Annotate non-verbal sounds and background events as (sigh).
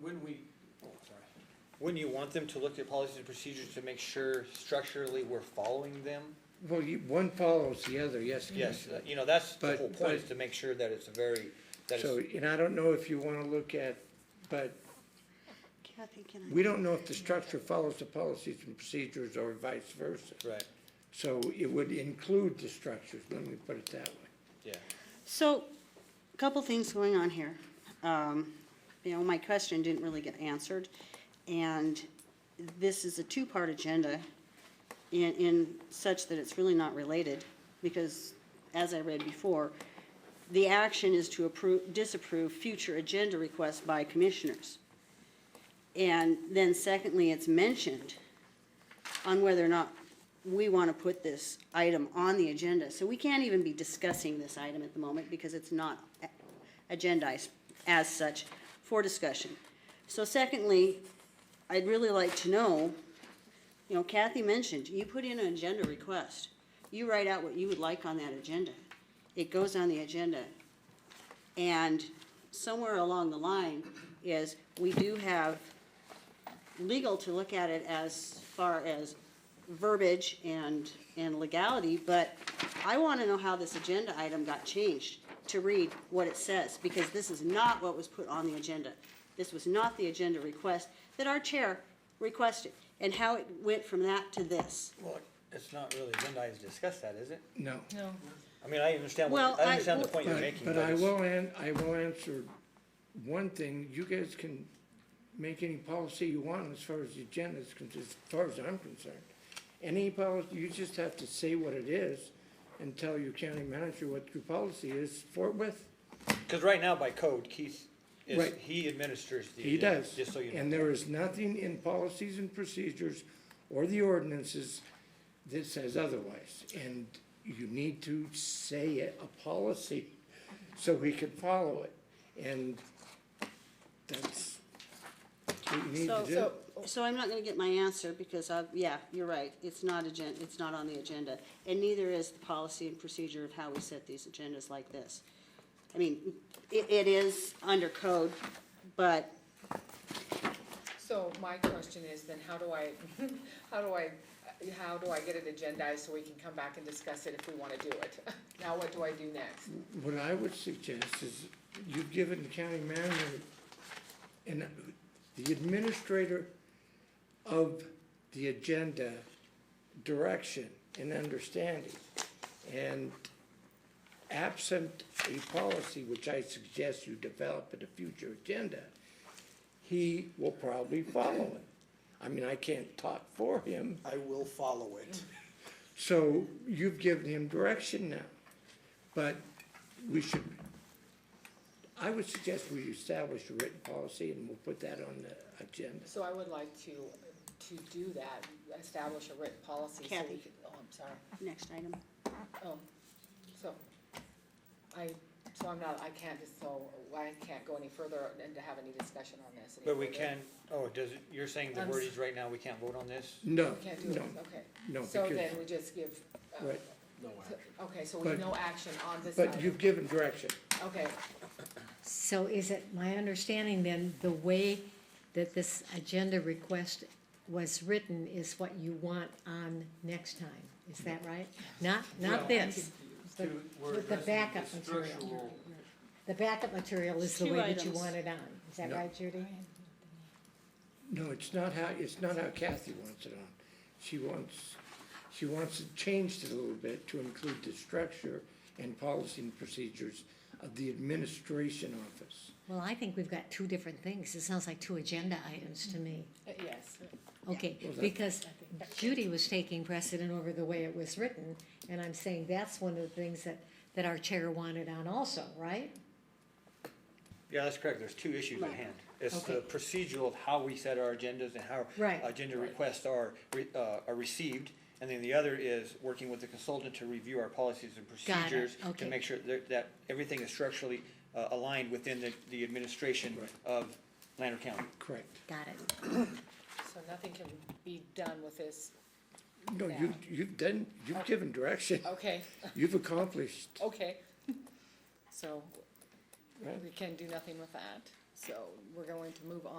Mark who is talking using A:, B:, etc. A: Wouldn't we, oh, sorry.
B: Wouldn't you want them to look at policies and procedures to make sure structurally we're following them?
C: Well, you, one follows the other, yes.
B: Yes,
C: Commissioner.
B: you know, that's the
C: Mm-hmm. But-
B: whole point, is
C: but-
B: to make sure that it's a very, that
C: So,
B: it's,
C: and I don't know if you wanna look at, but
D: Kathy, can I?
C: we don't know if the structure follows the policies and procedures or vice versa.
B: right,
C: So it would include the structures, let me put it that way.
B: yeah.
D: So, a couple things going on here. Um, You know, my question didn't really get answered, and this is a two-part agenda in, in such that it's really not related, because as I read before, the action is to approve, disapprove future agenda requests by commissioners. And then secondly, it's mentioned on whether or not we want to put this item on the agenda. So we can't even be discussing this item at the moment because it's not a- agendized as such for discussion. So secondly, I'd really like to know, you know, Kathy mentioned, you put in an agenda request. You write out what you would like on that agenda. It goes on the agenda. And somewhere along the line is, we do have legal to look at it as far as verbiage and, and legality, but I want to know how this agenda item got changed to read what it says, because this is not what was put on the agenda. This was not the agenda request that our chair requested, and how it went from that to this.
B: Well, it's not really agendized to discuss that, is it?
C: No.
E: No,
B: I mean, I understand,
D: Well,
B: what I
D: I-
B: understand the point you're
C: But-
B: making,
C: But
B: but
C: I
B: it's,
C: will an, I will answer one thing, you guys can make any policy you want as far as the agenda is concerned, as far as I'm concerned. Any policy, you just have to say what it is and tell your county manager what your policy is forthwith.
B: because right now by code, Keith is,
C: Right.
B: he administers the.
C: He
B: agenda,
C: does.
B: Just so you know.
C: And there is nothing in policies and procedures or the ordinances that says otherwise. And you need to say a a policy so we can follow it. And that's what you need to
D: So-
C: do.
D: So I'm not going to get my answer, because I, yeah, you're right, it's not agen, it's not on the agenda, and neither is the policy and procedure of how we set these agendas like this. I mean, it, it is under code, but
E: so my question is then how do I, (laughs) how do I, how do I get it agendized so we can come back and discuss it if we wanna do it? (laughs) Now what do I do next?
C: What I would suggest is you've given the county manager and the administrator of the agenda direction and understanding. And absent a policy, which I suggest you develop at a future agenda, he will probably follow it. I mean, I can't talk for him.
F: I will follow it.
C: So you've given him direction now, but we should, I would suggest we establish a written policy and we'll put that on the agenda.
E: So I would like to, to do that, establish a written policy so we
D: Kathy.
E: could, oh, I'm sorry,
D: next item.
E: oh, so. I, so I'm not, I can't just, so I can't go any further and to have any discussion on this. any
B: But we
E: further.
B: can, oh, does it, you're saying the
E: I'm s-
B: word is right now, we can't vote on this?
C: No,
E: We Can't do
C: no,
E: this, okay.
C: no,
E: So
C: because-
E: then we just give, uh,
C: right,
F: No
E: so- okay, so we
C: But-
E: no action on this
C: but
E: item,
C: you've given direction.
E: okay,
G: So is it my understanding then, the way that this agenda request was written is what you want on next time? Is that right? Not,
A: Well, I
G: not this, but
A: To- we're
G: with the
A: addressing
G: backup
A: the
G: material.
A: structural-
G: The backup material is the
D: Two
G: way that you
D: items.
G: want it on. Is that
C: No.
G: right, Judy?
C: No, it's not how, it's not how Kathy wants it on. She wants, she wants it changed a little bit to include the structure and policy and procedures of the administration office.
G: Well, I think we've got two different things. It sounds like two agenda items to me.
E: Uh, yes.
G: Okay,
C: What was that?
G: because Judy was taking precedent over the way it was written, and I'm saying that's one of the things that, that our chair wanted on also, right?
B: Yeah, that's correct, there's two issues at hand. It's the
G: Okay.
B: procedural of how we set our agendas and how
G: Right.
B: agenda requests are, re- uh, are received. And then the other is working with the consultant to review our policies and
G: it,
B: procedures. To
G: okay.
B: make sure that, that everything is structurally uh, aligned within the, the administration of Lander County.
C: Correct.
G: Got it.
E: So nothing can be done with this,
C: No, you, you've done, you've given direction.
E: okay,
C: You've accomplished.
E: okay. So
C: Right.
E: we can do nothing with that, so we're going to move on